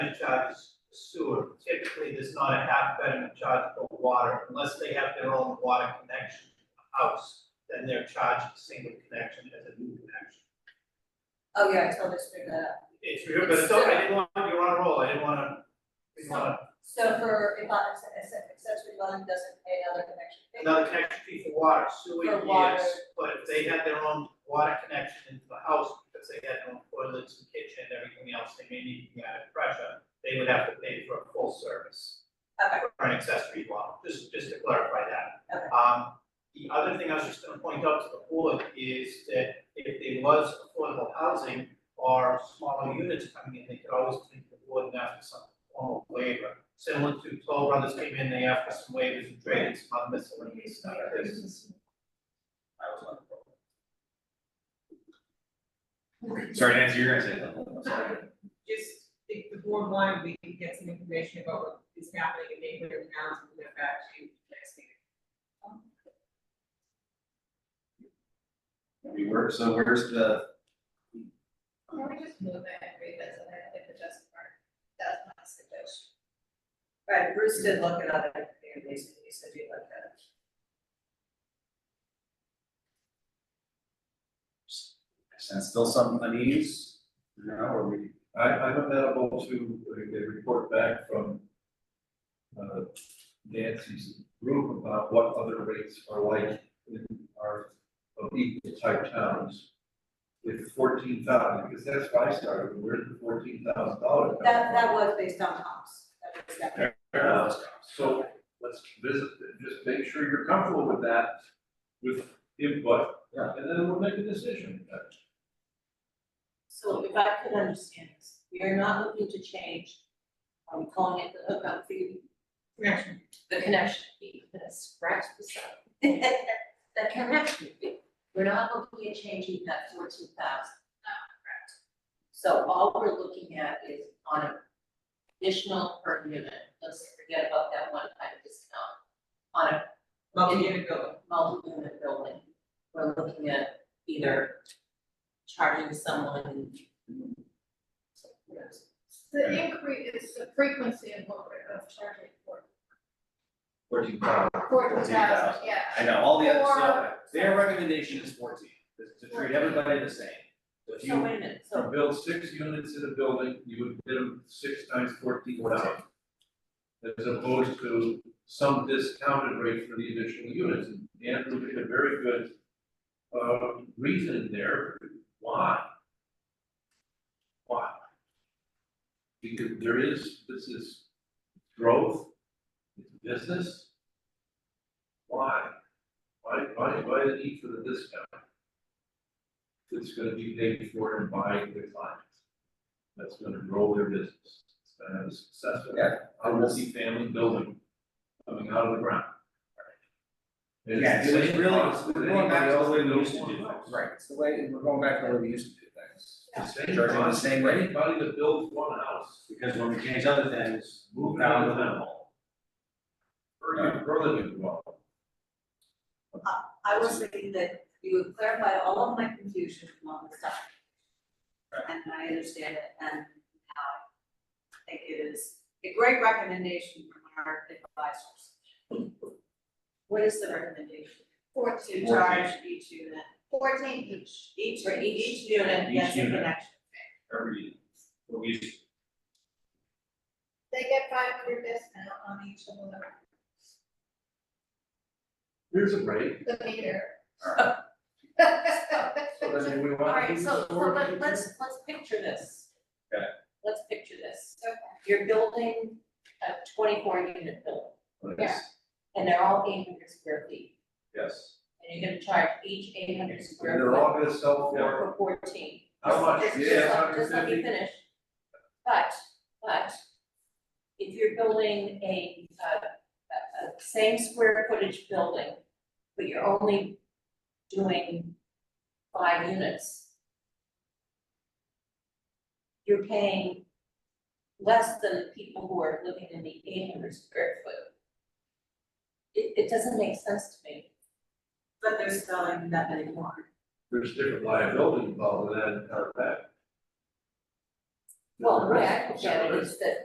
betterment charge sewer, typically there's not a half betterment charge for water, unless they have their own water connection to the house, then they're charged a single connection as a new connection. Oh, yeah, I totally screwed that up. It's, real, but so, I didn't want, you're on a roll, I didn't wanna, didn't wanna, So for, if I, if an accessory dwelling doesn't pay another connection fee? another connection fee for water, sewer, For water. yes, but if they had their own water connection into the house, because they had their own toilets and kitchen, and everything else, they may need to add pressure, they would have to pay for a full service. Okay, for an accessory dwelling, just, just to clarify that. Okay. Um, the other thing I was just gonna point out to the board is that if there was affordable housing or smaller units coming in, they could always take the board and ask for some formal waiver. Similar to Toll Brothers came in, they asked for some waivers and trades, not miscellaneous stuff, this is- I was on the board. Sorry, Nancy, you're gonna say something. just think the board wanted, we can get some information about what is happening in neighborhood towns and get back to you next meeting. We were, so where's the, Can we just move it and revisit it if the just part? That's my suggestion. right, Bruce did look at other communities, and you said you looked at it. sense still some unease? No, or we, I, I'm amenable to a, a report back from uh, Nancy's group about what other rates are like in our, of equal type towns. With fourteen thousand, because that's why I started, where did the fourteen thousand dollars come That, from? that was based on comps, that was that. Uh, So let's visit, just make sure you're comfortable with that, with input, Yeah. and then we'll make a decision. So if I could understand this, we are not looking to change, are we calling it the hookup fee, Connection. the connection fee, the scratch the side. The connection fee, we're not looking at changing that fourteen thousand. Correct. So all we're looking at is on an additional per unit, let's forget about that one time discount. On a Multi-unit building. multi-unit building, we're looking at either charging someone. The increase is the frequency and what rate of charging for, fourteen thousand? for the 14,000. thousand, yeah. I know, all the other stuff, Or- their recommendation is fourteen, is to treat everybody the same. So If So you, wait a minute, so Now, Build six units in a building, you would bid them six times fourteen thousand. As opposed to some discounted rate for the additional units, and Andrew did a very good uh, reason there, why? Why? Because there is, this is growth, it's business. Why? Why, why, why the need for the discount? It's gonna be paid for and by the clients. That's gonna grow their business, it's gonna have a successful, Yeah. a multifamily building coming out of the ground. And yeah, it's the so it's same really, process we're that going back to anybody the way we else used to do that things, right, it's the way, we're going back to the way we used to do things. builds one house. The same Charging the process same for rate. anybody that builds one house, Because when we change other things, move down the minimal. or you grow them into one. I was thinking that you would clarify all of my confusion on the side. And I understand it and now I think it is a great recommendation from our advisors. What is the recommendation? Fourteen, To charge each unit, fourteen each. each, for each unit, Each that's a unit. connection. Every, what we used to They get five hundred discount on each of them, Here's a rate, the meter. so then we want to. All right, do so, this so work. let, let's, let's picture this. Okay. Let's picture this. Okay. You're building a twenty-four unit building, Yes, and they're all eight hundred square feet, yes. and you're gonna charge each eight hundred And square they're foot all gonna sell for for fourteen. how much? Just- just Yeah, let- Just let me 150? finish. But, but, if you're building a, uh, a, a same square footage building, but you're only doing five units, you're paying less than the people who are living in the eight hundred square foot. It, it doesn't make sense to me. But they're selling that many more. There's different liability involved in that, in that. Well, the way I look at it is that